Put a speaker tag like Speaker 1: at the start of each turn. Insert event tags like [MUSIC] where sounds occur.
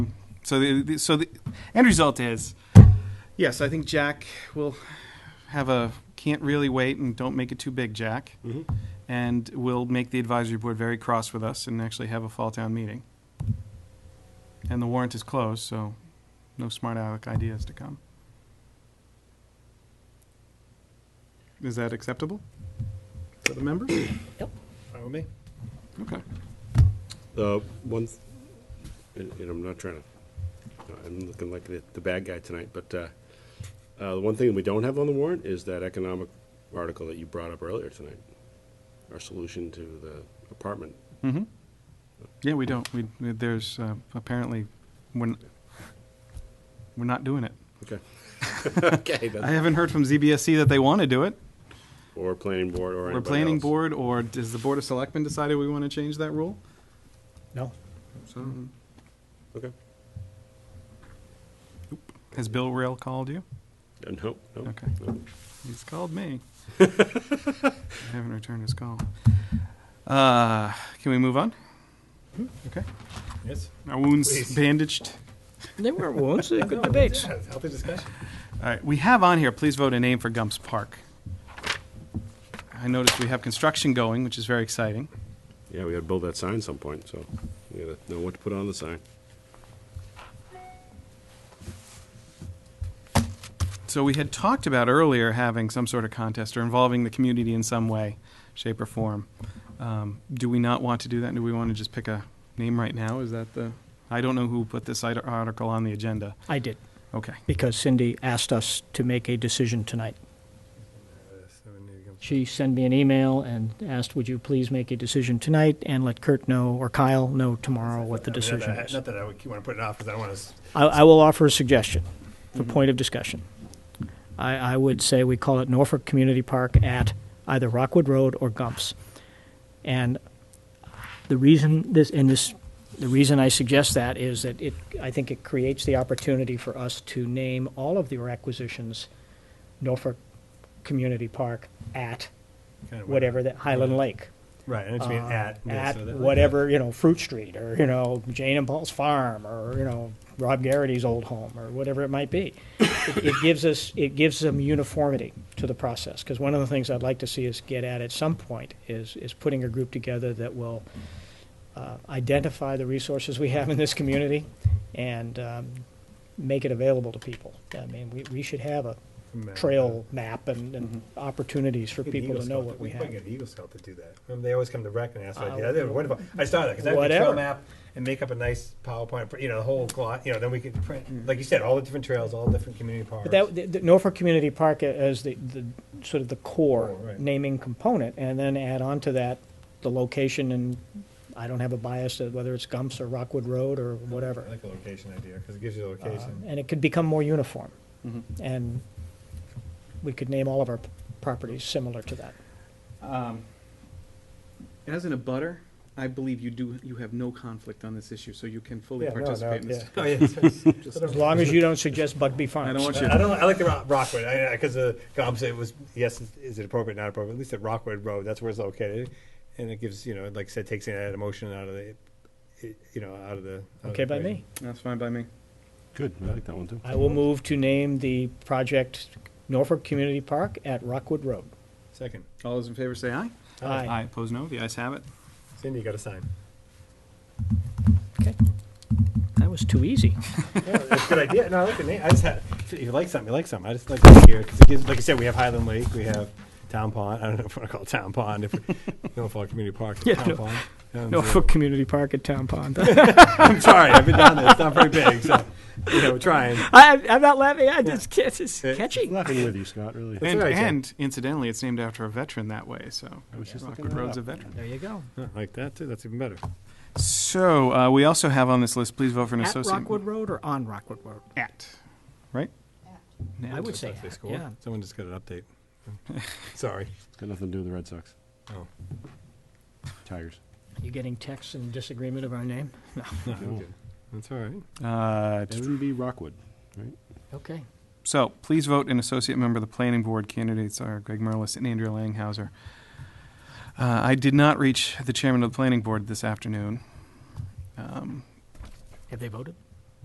Speaker 1: So the, the so the end result is, yes, I think Jack will have a can't really wait and don't make it too big, Jack, and will make the advisory board very cross with us and actually have a fall town meeting. And the warrant is closed, so no smart aleck ideas to come. Is that acceptable for the members?
Speaker 2: Follow me?
Speaker 1: Okay.
Speaker 3: The Uh, one, th- and and I'm not trying to, uh, I'm looking like the, the bad guy tonight, but, uh, uh, the one thing we don't have on the warrant is that economic article that you brought up earlier tonight. Our solution to the apartment.
Speaker 1: Mm-hmm. Yeah, we don't. We, there's, uh, apparently, we're, we're not doing it.
Speaker 3: Okay. [LAUGHS] Okay,
Speaker 1: I
Speaker 3: that's-
Speaker 1: haven't heard from ZBSC E that they want to do it.
Speaker 3: or planning board or anybody
Speaker 1: Or planning
Speaker 3: else.
Speaker 1: board, or does the Board of Selectmen decided we want to change that rule?
Speaker 2: No.
Speaker 1: So,
Speaker 3: Okay.
Speaker 1: has Bill Rail called you?
Speaker 3: Uh, No, no.
Speaker 1: Okay.
Speaker 3: no.
Speaker 1: He's called me.
Speaker 3: [LAUGHS]
Speaker 1: I haven't returned his call. Uh, can we move on? Okay.
Speaker 2: Yes.
Speaker 1: Our wounds
Speaker 2: Please.
Speaker 1: bandaged.
Speaker 4: They [LAUGHS] weren't wounds, they were good debates.
Speaker 2: Healthy discussion.
Speaker 1: All right, we have on here, please vote a name for Gumps Park. I noticed we have construction going, which is very exciting.
Speaker 3: Yeah, we gotta build that sign some point, so we gotta know what to put on the sign.
Speaker 1: So we had talked about earlier having some sort of contest or involving the community in some way, shape, or form. Um, Do we not want to do that? Do we want to just pick a name right now? Is that the, I don't know who put this ite- article on the agenda.
Speaker 4: I did,
Speaker 1: Okay,
Speaker 4: because Cindy asked us to make a decision tonight. She sent me an email and asked, would you please make a decision tonight and let Kurt know, or Kyle know tomorrow what the decision is.
Speaker 2: Not that I would want to put it off, because I don't want to,
Speaker 4: I, I will offer a suggestion for point of discussion. I, I would say we call it Norfolk Community Park at either Rockwood Road or Gumps. And the reason this, and this, the reason I suggest that is that it, I think it creates the opportunity for us to name all of the acquisitions Norfolk Community Park at
Speaker 2: kind of.
Speaker 4: whatever that, Highland Lake.
Speaker 2: Right, and it's being
Speaker 4: uh,
Speaker 2: at. yeah,
Speaker 4: at
Speaker 2: so that-
Speaker 4: whatever you know Fruit Street or you know Jane and Paul's farm or you know Rob Garrity's old home or whatever it might be. it, it gives us it gives them uniformity to the process because one of the things I'd like to see us get at at some point is is putting a group together that will uh, identify the resources we have in this community and um, make it available to people. I mean, we, we should have a
Speaker 2: Map. Mm-hmm.
Speaker 4: trail map and, and opportunities for
Speaker 2: Get an
Speaker 4: people
Speaker 2: Eagle
Speaker 4: to know
Speaker 2: Scout
Speaker 4: what we
Speaker 2: could
Speaker 4: have.
Speaker 2: get an Eagle Scout to do that. Remember, they always come to rec and ask for
Speaker 4: Uh,
Speaker 2: ideas. That'd be wonderful. I saw that, because that'd be a trail
Speaker 4: Whatever.
Speaker 2: map and make up a nice PowerPoint, pr- you know, the whole glot, you know, then we could print, like you said, all the different trails, all the different community parks.
Speaker 4: But that, the- the Norfolk Community Park as the, the, sort of the core
Speaker 2: Core, Oh, right.
Speaker 4: naming component, and then add on to that the location, and I don't have a bias to whether it's Gumps or Rockwood Road or whatever.
Speaker 2: I like the location idea, because it gives you the
Speaker 4: Uh,
Speaker 2: location.
Speaker 4: And it could become more uniform,
Speaker 1: Mhm.
Speaker 4: and we could name all of our p- properties similar to that.
Speaker 1: Um, As an abutter, I believe you do, you have no conflict on this issue, so you can fully
Speaker 2: Yeah, no, no,
Speaker 1: participate in this.
Speaker 2: yeah. Oh, yeah, [LAUGHS] it's- it's-
Speaker 1: Just-
Speaker 2: sort of
Speaker 4: As long as you don't suggest Bugby Farms.
Speaker 1: I don't want you.
Speaker 2: I I don't. I like the Ro- Rockwood because the uh, Gob said it was yes. is- Is it appropriate? Not appropriate. At least at Rockwood Road, that's where it's located, and it gives you know, like I said, takes it out of emotion out of the, it, you know, out of the. out of
Speaker 4: Okay
Speaker 2: the
Speaker 4: by
Speaker 2: equation.
Speaker 4: me.
Speaker 1: That's fine by me.
Speaker 3: Good, I like that one too.
Speaker 4: I will move to name the project Norfolk Community Park at Rockwood Road.
Speaker 2: Second,
Speaker 1: All those in favor say aye.
Speaker 4: Aye.
Speaker 1: Opposed, no. The ayes have it.
Speaker 2: Cindy, you got a sign.
Speaker 4: Okay. That was too easy.
Speaker 2: [LAUGHS] Yeah, that's a good idea. No, I like the name. I just had. If you like something, you like something. I just like it here because it gives. Like I said, we have Highland Lake, we have Town Pond. I don't know if I want to call it Town Pond if we, Norfolk Community Park.
Speaker 4: Yeah,
Speaker 2: Town
Speaker 4: no.
Speaker 2: Pond. Um,
Speaker 4: Norfolk Community Park at Town [LAUGHS] Pond.
Speaker 2: I'm sorry, I've been down there.
Speaker 4: [LAUGHS]
Speaker 2: It's not very big, so you know, we're trying.
Speaker 4: I, I'm not laughing. I just it's, it's
Speaker 2: Yeah.
Speaker 4: catching.
Speaker 3: Nothing with you, Scott, really.
Speaker 2: That's
Speaker 1: And,
Speaker 2: what I said.
Speaker 1: and incidentally, it's named after a veteran that way, so
Speaker 3: I was just looking
Speaker 1: Rockford
Speaker 3: that
Speaker 1: Road's a
Speaker 3: up.
Speaker 1: veteran.
Speaker 4: There you go.
Speaker 2: Huh, Like that too. That's even better.
Speaker 1: So, uh, we also have on this list, please vote for an
Speaker 4: At
Speaker 1: associate.
Speaker 4: Rockwood Road or on Rockwood Road?
Speaker 1: At, right? At.
Speaker 4: I would say,
Speaker 2: That's cool.
Speaker 4: yeah.
Speaker 2: Someone just got an [LAUGHS] update. Sorry.
Speaker 3: It's got nothing to do with the Red Sox,
Speaker 2: Oh,
Speaker 3: Tigers.
Speaker 4: You getting texts in disagreement of our name? No.
Speaker 2: no,
Speaker 3: No.
Speaker 2: I'm good. That's all right.
Speaker 1: Uh,
Speaker 3: That would be Rockwood, right?
Speaker 4: Okay.
Speaker 1: So, please vote an associate member of the planning board. Candidates are Greg Merlis and Andrea Langhauser. Uh, I did not reach the chairman of the planning board this afternoon. Um,
Speaker 4: Have they voted?